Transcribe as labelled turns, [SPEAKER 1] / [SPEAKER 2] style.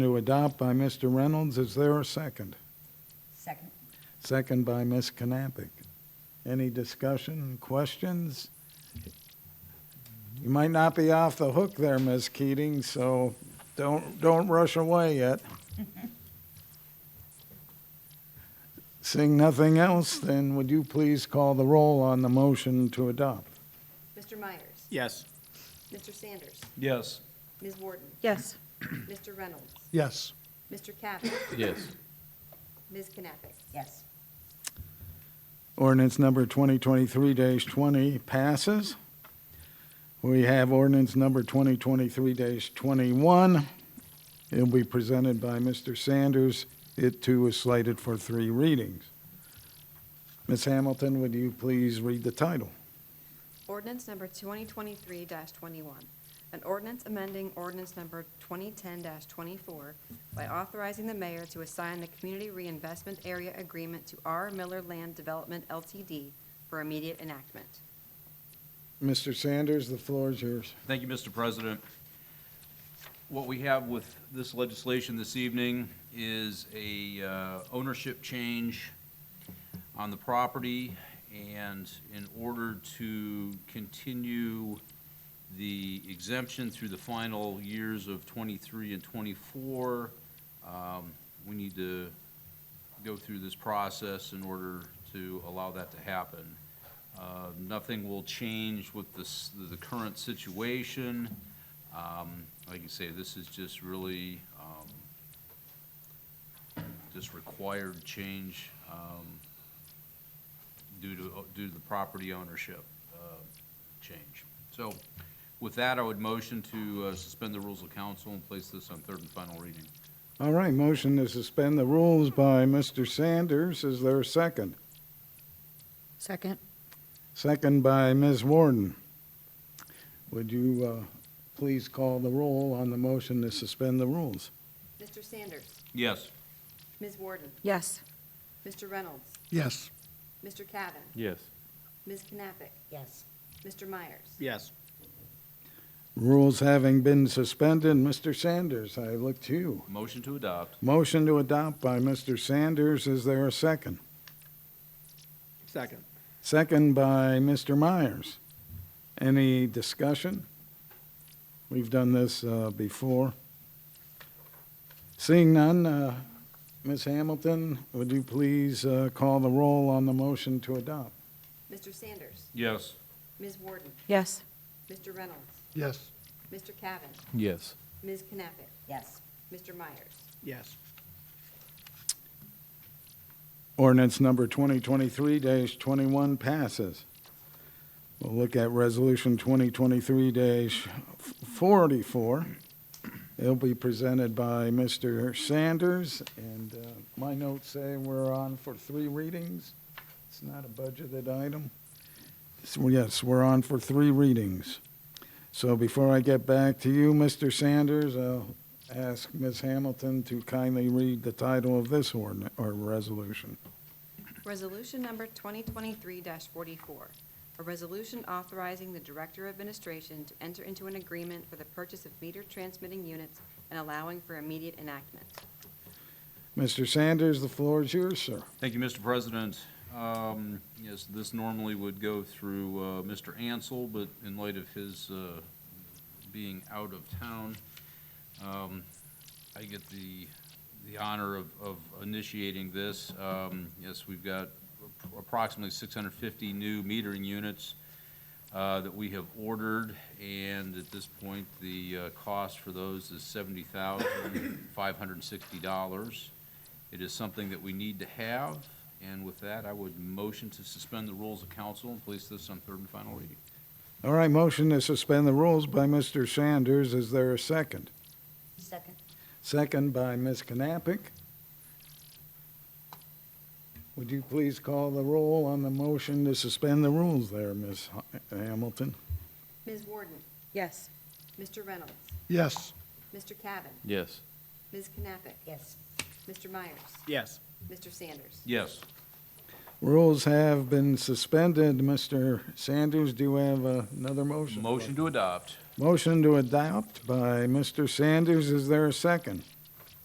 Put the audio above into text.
[SPEAKER 1] To adopt by Mr. Reynolds, is there a second?
[SPEAKER 2] Second.
[SPEAKER 1] Second by Ms. Knappich. Any discussion, questions? You might not be off the hook there, Ms. Keating, so don't, don't rush away yet. Seeing nothing else, then would you please call the roll on the motion to adopt?
[SPEAKER 3] Mr. Myers?
[SPEAKER 4] Yes.
[SPEAKER 3] Mr. Sanders?
[SPEAKER 4] Yes.
[SPEAKER 3] Ms. Warden?
[SPEAKER 2] Yes.
[SPEAKER 3] Mr. Reynolds?
[SPEAKER 1] Yes.
[SPEAKER 3] Mr. Cavan?
[SPEAKER 4] Yes.
[SPEAKER 3] Ms. Knappich?
[SPEAKER 2] Yes.
[SPEAKER 1] Ordinance number 2023-20 passes. We have ordinance number 2023-21. It'll be presented by Mr. Sanders. It too is slated for three readings. Ms. Hamilton, would you please read the title?
[SPEAKER 3] Ordinance number 2023-21, an ordinance amending ordinance number 2010-24 by authorizing the mayor to assign the Community Reinvestment Area Agreement to R. Miller Land Development LTD for immediate enactment.
[SPEAKER 1] Mr. Sanders, the floor is yours.
[SPEAKER 5] Thank you, Mr. President. What we have with this legislation this evening is a uh, ownership change on the property, and in order to continue the exemption through the final years of 23 and 24, um, we need to go through this process in order to allow that to happen. Uh, Nothing will change with the, s- the current situation. Um, Like you say, this is just really, um, just required change um, due to, due to the property ownership uh, change. So with that, I would motion to uh, suspend the rules of council and place this on third and final reading.
[SPEAKER 1] All right, motion to suspend the rules by Mr. Sanders. Is there a second?
[SPEAKER 2] Second.
[SPEAKER 1] Second by Ms. Warden. Would you uh, please call the roll on the motion to suspend the rules?
[SPEAKER 3] Mr. Sanders?
[SPEAKER 5] Yes.
[SPEAKER 3] Ms. Warden?
[SPEAKER 2] Yes.
[SPEAKER 3] Mr. Reynolds?
[SPEAKER 1] Yes.
[SPEAKER 3] Mr. Cavan?
[SPEAKER 4] Yes.
[SPEAKER 3] Ms. Knappich?
[SPEAKER 2] Yes.
[SPEAKER 3] Mr. Myers?
[SPEAKER 4] Yes.
[SPEAKER 1] Rules having been suspended, Mr. Sanders, I look to you.
[SPEAKER 5] Motion to adopt.
[SPEAKER 1] Motion to adopt by Mr. Sanders, is there a second?
[SPEAKER 4] Second.
[SPEAKER 1] Second by Mr. Myers. Any discussion? We've done this uh, before. Seeing none, uh, Ms. Hamilton, would you please uh, call the roll on the motion to adopt?
[SPEAKER 3] Mr. Sanders?
[SPEAKER 5] Yes.
[SPEAKER 3] Ms. Warden?
[SPEAKER 2] Yes.
[SPEAKER 3] Mr. Reynolds?
[SPEAKER 4] Yes.
[SPEAKER 3] Mr. Cavan?
[SPEAKER 4] Yes.
[SPEAKER 3] Ms. Knappich?
[SPEAKER 2] Yes.
[SPEAKER 3] Mr. Myers?
[SPEAKER 4] Yes.
[SPEAKER 1] Ordinance number 2023-21 passes. We'll look at Resolution 2023-44. It'll be presented by Mr. Sanders, and uh, my notes say we're on for three readings. It's not a budgeted item. So, Yes, we're on for three readings. So before I get back to you, Mr. Sanders, I'll ask Ms. Hamilton to kindly read the title of this ordin or resolution.
[SPEAKER 3] Resolution number 2023-44, a resolution authorizing the Director of Administration to enter into an agreement for the purchase of meter transmitting units and allowing for immediate enactment.
[SPEAKER 1] Mr. Sanders, the floor is yours, sir.
[SPEAKER 5] Thank you, Mr. President. Um, Yes, this normally would go through uh, Mr. Ansel, but in light of his uh, being out of town, um, I get the, the honor of of initiating this. Um, Yes, we've got approximately 650 new metering units uh, that we have ordered, and at this point, the uh, cost for those is $70,560. It is something that we need to have, and with that, I would motion to suspend the rules of council and place this on third and final reading.
[SPEAKER 1] All right, motion to suspend the rules by Mr. Sanders. Is there a second?
[SPEAKER 2] Second.
[SPEAKER 1] Second by Ms. Knappich. Would you please call the roll on the motion to suspend the rules there, Ms. Ha- Hamilton?
[SPEAKER 3] Ms. Warden?
[SPEAKER 2] Yes.
[SPEAKER 3] Mr. Reynolds?
[SPEAKER 1] Yes.
[SPEAKER 3] Mr. Cavan?
[SPEAKER 4] Yes.
[SPEAKER 3] Ms. Knappich?
[SPEAKER 2] Yes.
[SPEAKER 3] Mr. Myers?
[SPEAKER 4] Yes.
[SPEAKER 3] Mr. Sanders?
[SPEAKER 5] Yes.
[SPEAKER 1] Rules have been suspended. Mr. Sanders, do you have uh, another motion?
[SPEAKER 5] Motion to adopt.
[SPEAKER 1] Motion to adopt by Mr. Sanders. Is there a second?